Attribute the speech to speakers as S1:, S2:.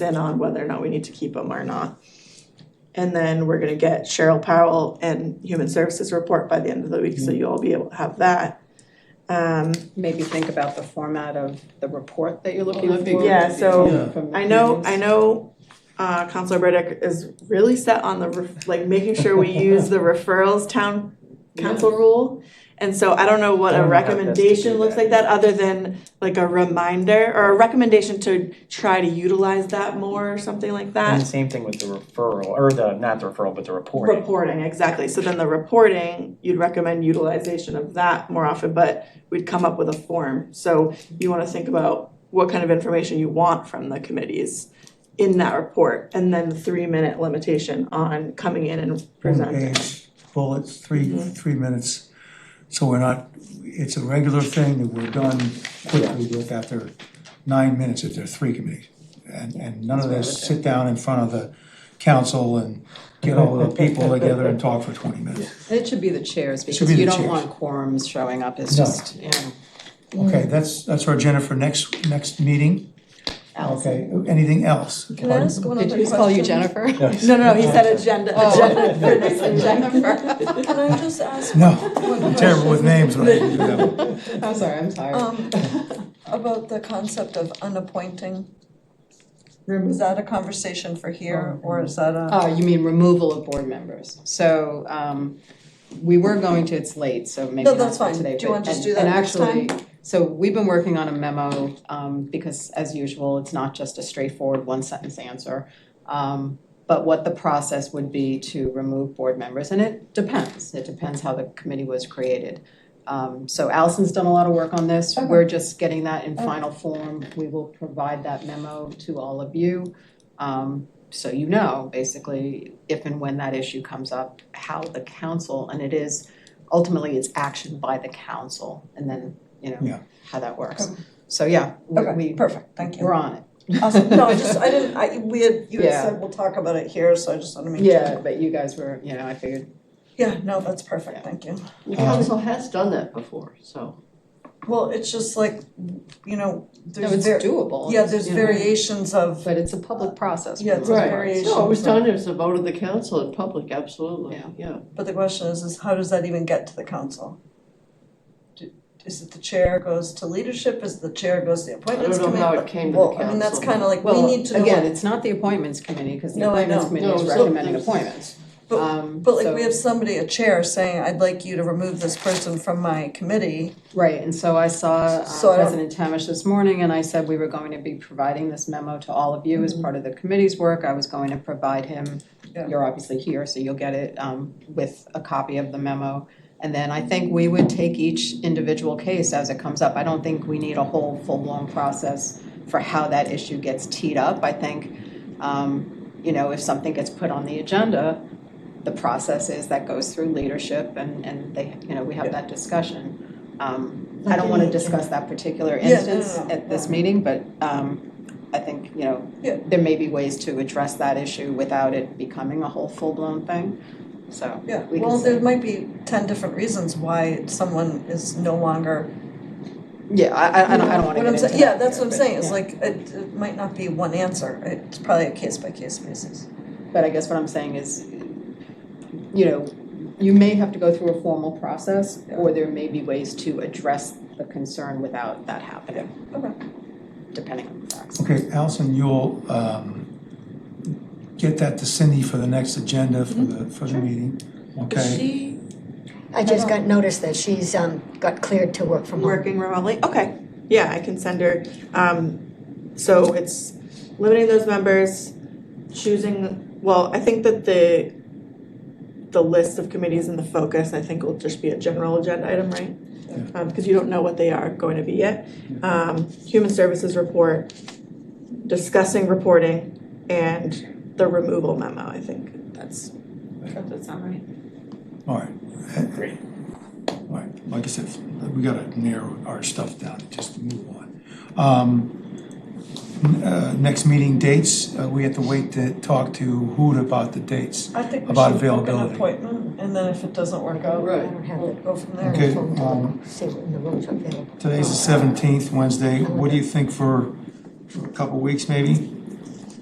S1: in on whether or not we need to keep them or not. And then we're gonna get Cheryl Powell and Human Services report by the end of the
S2: Mm-hmm.
S1: week, so you'll all be able to have that. Um,
S3: maybe think about the format of the report that you're looking
S4: Well, that'd be
S3: for.
S4: good.
S1: Yeah, so
S3: From the
S1: I know, I
S3: meetings.
S1: know, uh, Counselor Burdick is really set on the, ref- like, making sure we use the referrals town council rule. And so I don't know what
S2: I
S1: a
S2: don't have this to do
S1: recommendation looks
S2: that.
S1: like that, other than like a reminder or a recommendation to try to utilize that more or something like that.
S2: And the same thing with the referral, or the, not the referral, but the reporting.
S1: Reporting, exactly, so then the reporting, you'd recommend utilization of that more often, but we'd come up with a form. So you wanna think about what kind of information you want from the committees in that report, and then the three-minute limitation on coming in and
S5: one
S1: presenting.
S5: page bullets, three,
S6: Mm-hmm.
S5: three minutes. So we're not, it's a regular thing that we're done quickly with after nine minutes if there are three committees. And, and none of this sit down in front of the council and get all the people together and talk for twenty minutes.
S3: It should be the chairs because
S5: be the
S3: you don't
S5: chairs.
S3: want quorums showing up, it's
S5: No.
S3: just, you know,
S5: Okay, that's, that's our agenda for next, next meeting. Okay, anything else?
S6: Can I ask one
S3: did
S6: other question?
S3: you just call you Jennifer?
S1: No, no, he said agenda,
S3: Oh.
S1: agenda, for this agenda.
S6: Can I just ask
S5: No,
S6: one
S5: I'm terrible with
S6: question
S5: names when I do that.
S3: I'm sorry, I'm tired.
S6: Um, about the concept of unappointing? Is that a conversation for here or is that a?
S3: Oh, you mean removal of board members, so, um, we were going to, it's late, so maybe
S6: No,
S3: not
S6: that's
S3: for
S6: fine.
S3: today,
S6: Do you wanna
S3: but-
S6: just
S3: and-
S6: do that
S3: and
S6: next
S3: actually, So we've been working on a memo, um, because as usual, it's not just a straightforward one sentence answer. Um, but what the process would be to remove board members, and it depends, it depends how the committee was created. Um, so Allison's done a lot of work on this, we're just getting that in final form, we will provide that memo to all of you. Um, so you know, basically, if and when that issue comes up, how the council, and it is, ultimately, it's action by the council, and then, you
S5: Yeah.
S3: know, how that works.
S6: Okay.
S3: So, yeah, we,
S6: Okay,
S3: we-
S6: perfect, thank you.
S3: we're on it.
S6: Awesome, no, I just, I didn't, I, we had, you had
S3: Yeah.
S6: said we'll talk about it here, so I just wanna make sure.
S3: Yeah, but you guys were, you know, I figured
S6: Yeah, no, that's perfect, thank you.
S4: The
S5: Um,
S4: council has done that before, so.
S6: Well, it's just like, you know,
S3: No,
S6: there's
S3: it's
S6: ver-
S3: doable.
S6: yeah, there's
S3: you know,
S6: variations of,
S3: But it's a public process. for
S6: Yeah,
S3: the
S6: it's
S3: most
S6: a
S3: part.
S6: variation.
S4: No, it was done as a vote of the council in public, absolutely,
S3: Yeah.
S4: yeah.
S6: but the question is, is how does that even get to the council? Do- Is it the chair goes to leadership, is the chair goes to the appointments
S4: know
S6: committee?
S4: how it came to the
S6: Well, I mean, that's
S4: council.
S6: kinda like, we
S3: Well,
S6: need to know.
S3: again, it's not the appointments committee, because the
S6: No, I
S3: appointments
S6: know.
S3: committee is
S4: No, so
S3: recommending
S4: there's-
S3: appointments.
S6: But-
S3: Um,
S6: But like,
S3: so-
S6: we have somebody, a chair, saying, I'd like you to remove this person from my committee.
S3: Right, and so I saw uh,
S6: So I don't-
S3: President Tamish this morning, and I said we were going to be providing this memo to all of you as part of the committee's work. I was going to provide him,
S6: Mm-hmm. Yeah.
S3: you're obviously here, so you'll get it, um, with a copy of the memo. And then I think we would take each individual case as it comes up. I don't think we need a whole full-blown process for how that issue gets teed up. I think, um, you know, if something gets put on the agenda, the process is that goes through leadership and, and they, you know, we have that discussion. Um, I don't wanna discuss that particular
S6: Yeah, no, no,
S3: instance
S6: no,
S3: at this
S6: no.
S3: meeting, but, um, I think, you know,
S6: Yeah.
S3: there may be ways to address that issue without it becoming a whole full-blown thing, so.
S6: Yeah,
S3: we
S6: well,
S3: can see.
S6: there might be ten different reasons why someone is no longer.
S3: Yeah, I, I, I don't, I don't wanna
S6: What
S3: get
S6: I'm
S3: into
S6: saying-
S3: that
S6: Yeah, that's what I'm
S3: here, but,
S6: saying, it's
S3: yeah.
S6: like, it, it might not be one answer, it's probably a case by case basis.
S3: But I guess what I'm saying is, you know, you may have to go through a formal process, or there may be ways to address the concern without that happening.
S6: Okay.
S3: Depending on the facts.
S5: Okay, Allison, you'll um get that to Cindy for the next agenda for the for the meeting, okay?
S1: She
S7: I just got noticed that she's um got cleared to work from home.
S1: working remotely, okay, yeah, I can send her, um, so it's limiting those members, choosing, well, I think that the the list of committees and the focus, I think will just be a general agenda item, right? Um, cause you don't know what they are going to be yet. Um, human services report, discussing reporting, and the removal memo, I think, that's, does that sound right?
S5: All right. Great. All right, like I said, we gotta narrow our stuff down and just move on. Um, n- uh, next meeting dates, uh, we have to wait to talk to Hoot about the dates.
S6: I think we
S5: About
S6: should book an
S5: availability.
S6: appointment, and then if it doesn't work out,
S4: Right.
S7: I don't have
S6: we'll
S7: it.
S6: go from there.
S5: Okay,
S7: Phone
S5: um,
S7: to See what in the rooms are available.
S5: today's the seventeenth, Wednesday, what do you think for for a couple weeks maybe?